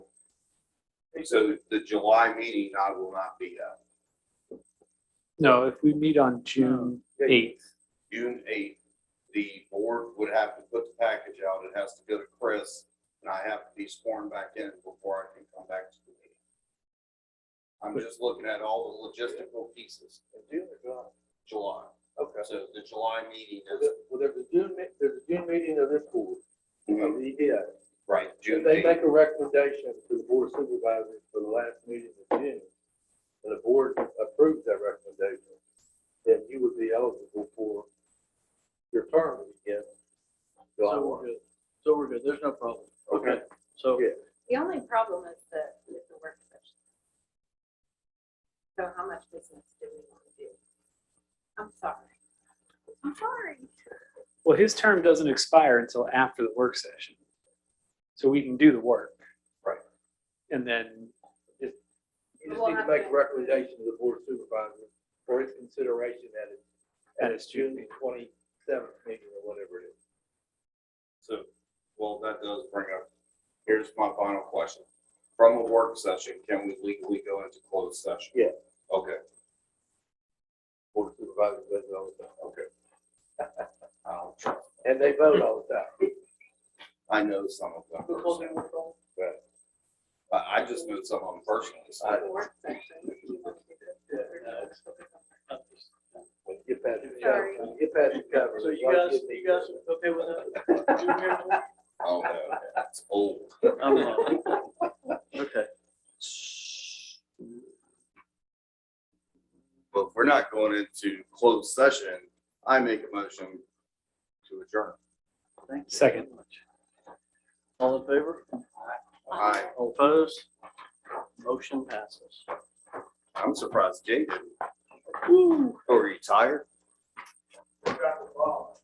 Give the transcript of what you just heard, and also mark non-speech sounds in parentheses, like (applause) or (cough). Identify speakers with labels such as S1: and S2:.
S1: So the July meeting, I will not be uh, at.
S2: No, if we meet on June
S1: Oh, Yeah, you-
S2: eighth,
S1: June eighth, the board would have to put the package out. It has to go to Chris, and I have to be sworn back in before I can come back to the meeting. I'm just looking at all the logistical pieces.
S3: June or July?
S1: July,
S3: Okay.
S1: so the July meeting
S3: So
S1: is,
S3: there- Well, there's a June, me- there's a June meeting of this board,
S1: Mhm.
S3: of the EPA.
S1: right,
S3: If
S1: June
S3: Mm-hmm. they
S1: eighth.
S3: make a recommendation to the board of supervisors for the last meeting in June, and the board approves that recommendation, then you would be eligible for your term to begin July
S4: So we're
S3: one.
S4: good. So we're good. There's no problem.
S3: uh, Okay.
S4: So
S3: Yeah.
S5: The only problem is the, is the work session. So how much business do we want to do? I'm sorry. I'm sorry.
S2: well, his term doesn't expire until after the work session. So we can do the work.
S1: Right.
S2: And then,
S3: You just need to make a recommendation to the board of supervisors for its consideration at its, at its June twenty-seventh meeting or whatever it is.
S1: So, well, that does bring up, here's my final question. From a work session, can we legally go into closed session?
S3: Yeah.
S1: Okay,
S3: Board of supervisors does it all the time.
S1: okay. (laughs) I'll try.
S3: And they vote all the time.
S1: I know some of them. personally. But I just know some of them personally, so I
S5: The work session, do you want to do this?
S4: Yeah,
S5: Or do you
S4: no.
S5: want to focus on work?
S3: When you get past the
S5: Sorry.
S3: cover, when you get past the cover.
S4: So you
S3: like
S4: guys,
S3: if they-
S4: you guys okay with that? June here?
S1: don't know. It's old.
S4: I'm on. Okay.
S1: But if we're not going into closed session, I make a motion to adjourn.
S4: Thank you
S2: Second.
S4: so much. All in favor?
S1: I,
S4: All opposed? Motion passes.
S1: I'm
S5: Hmm.
S1: surprised Jay didn't. Who Are you tired?
S3: Drop the ball.